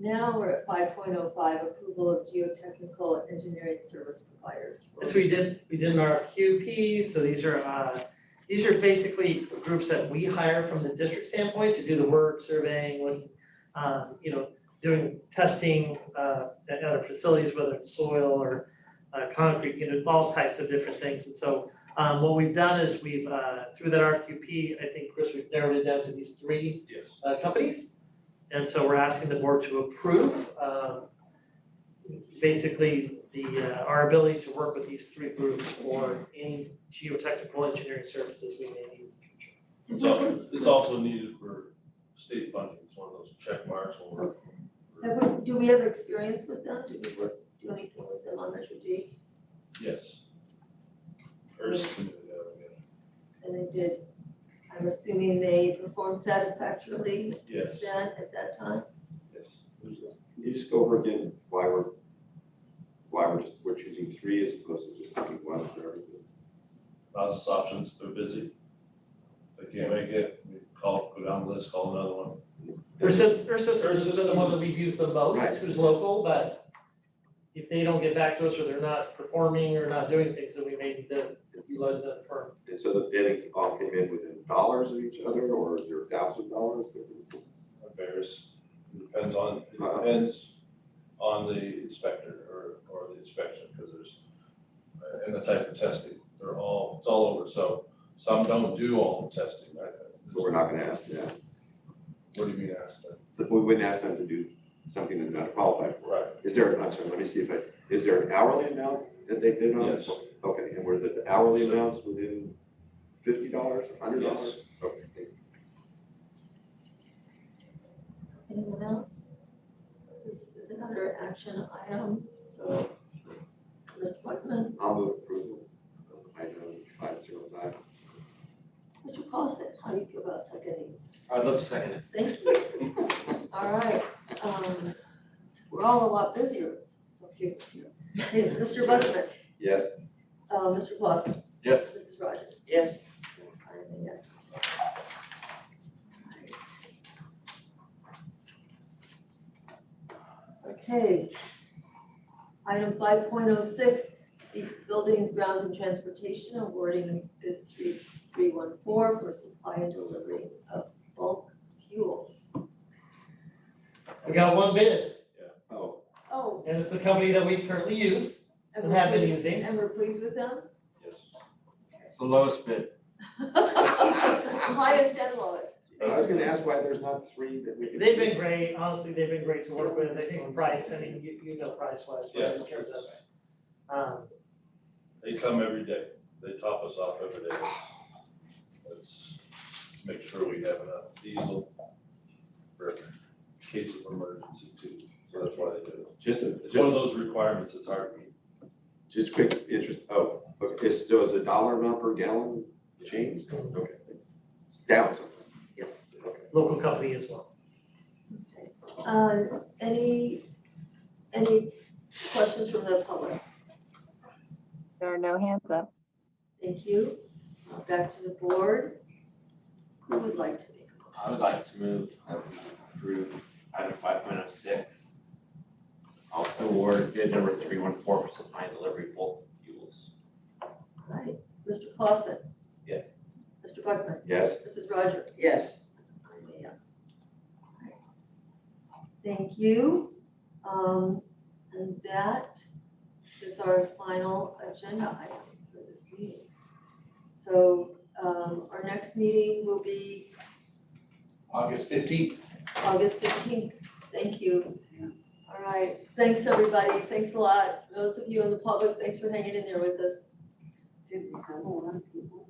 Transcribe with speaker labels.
Speaker 1: Now we're at five point oh five, approval of geotechnical engineering service providers.
Speaker 2: So we did, we did an RFQP, so these are, uh, these are basically groups that we hire from the district standpoint to do the work, surveying, looking, um, you know, doing testing, uh, at other facilities, whether it's soil or, uh, concrete, you know, all types of different things. And so, um, what we've done is we've, uh, through that RFQP, I think, Chris, we've narrowed it down to these three
Speaker 3: Yes.
Speaker 2: uh, companies. And so we're asking the board to approve, um, basically, the, uh, our ability to work with these three groups for any geotechnical engineering services we may need.
Speaker 3: It's also, it's also needed for state funding, it's one of those check marks or.
Speaker 1: Have we- do we have experience with them? Do we work, do anything with them on Measure D?
Speaker 3: Yes. Or something like that,
Speaker 1: And they did, I'm assuming they performed satisfactorily
Speaker 3: I guess. Yes,
Speaker 1: then at that time?
Speaker 3: yes.
Speaker 4: Can you just go over again why we're, why we're just, we're choosing three as opposed to just picking one for everything?
Speaker 3: Lots of options, they're busy. If they can't make it, we call, go down the list, call another one.
Speaker 2: Ursus, Ursus has been the one that
Speaker 3: Ursus.
Speaker 2: we've used the most,
Speaker 4: Right.
Speaker 2: who's local, but if they don't get back to us or they're not performing or not doing things, then we may need to utilize that firm.
Speaker 4: And so the bidding all came in within dollars of each other, or is there a thousand dollars?
Speaker 3: It varies, It depends on, it depends on the inspector or, or the inspection, because there's, uh, and the type of testing, they're all, it's all over, so some don't do all the testing, right?
Speaker 4: So we're not gonna ask them,
Speaker 3: What do you mean ask them?
Speaker 4: But we wouldn't ask them to do something that they're not qualified for.
Speaker 3: Right,
Speaker 4: Is there, I'm sorry, let me see if I, is there an hourly amount that they bid on?
Speaker 3: yes,
Speaker 4: Okay, and were the hourly amounts within fifty dollars, hundred dollars?
Speaker 3: yes,
Speaker 4: Okay, thank you.
Speaker 1: Anyone else? This is another action item, so, Mr. Whitman,
Speaker 4: I'll move approval of item five zero five.
Speaker 1: Mr. Clausen, how do you feel about seconding?
Speaker 5: I'd love to second it.
Speaker 1: Thank you. All right, um, we're all a lot busier, so few. Hey, Mr. Buckman,
Speaker 4: Yes.
Speaker 1: uh, Mr. Clausen.
Speaker 5: Yes.
Speaker 1: Mrs. Rogers.
Speaker 2: Yes.
Speaker 1: I'm a yes. Okay. Item five point oh six, buildings, grounds and transportation awarding bid three three one four for supply and delivery of bulk fuels.
Speaker 2: We got one bid,
Speaker 4: Oh,
Speaker 1: Oh,
Speaker 2: and it's the company that we currently use
Speaker 1: and
Speaker 2: and
Speaker 1: we're
Speaker 2: have been
Speaker 1: pleased,
Speaker 2: using.
Speaker 1: and we're pleased with them?
Speaker 3: yes.
Speaker 5: It's the lowest bid.
Speaker 1: Highest and lowest.
Speaker 4: I was gonna ask why there's not three that we could.
Speaker 2: They've been great, honestly, they've been great to work with, I think price, I mean, you, you know price wise,
Speaker 3: Yeah.
Speaker 2: right, in terms of. Um,
Speaker 3: They come every day, they top us off every day. Let's make sure we have enough diesel for case of emergency too, so that's why they do it.
Speaker 4: Just a,
Speaker 3: It's one of
Speaker 4: just,
Speaker 3: those requirements that's hard to meet.
Speaker 4: just quick interest, oh, okay, is, so is a dollar amount per gallon change? Okay, thanks. It's down something,
Speaker 2: yes,
Speaker 4: okay.
Speaker 2: local company as well.
Speaker 1: Um, any, any questions from the public?
Speaker 6: There are no hands up.
Speaker 1: Thank you. Uh, Back to the board. Who would like to make? a
Speaker 5: I would like to move, I would approve item five point oh six. Also award bid number three one four for supply and delivery of bulk fuels.
Speaker 1: All right, Mr. Clausen.
Speaker 5: Yes.
Speaker 1: Mr. Buckman.
Speaker 4: Yes?
Speaker 1: Mrs. Rogers.
Speaker 7: yes,
Speaker 1: I'm a yes. All right. Thank you. Um, and that is our final agenda item for this meeting. So, um, our next meeting will be
Speaker 5: August fifteenth.
Speaker 1: August fifteenth, thank you. All right, thanks, everybody, thanks a lot, those of you in the public, thanks for hanging in there with us.
Speaker 7: didn't have a lot of people.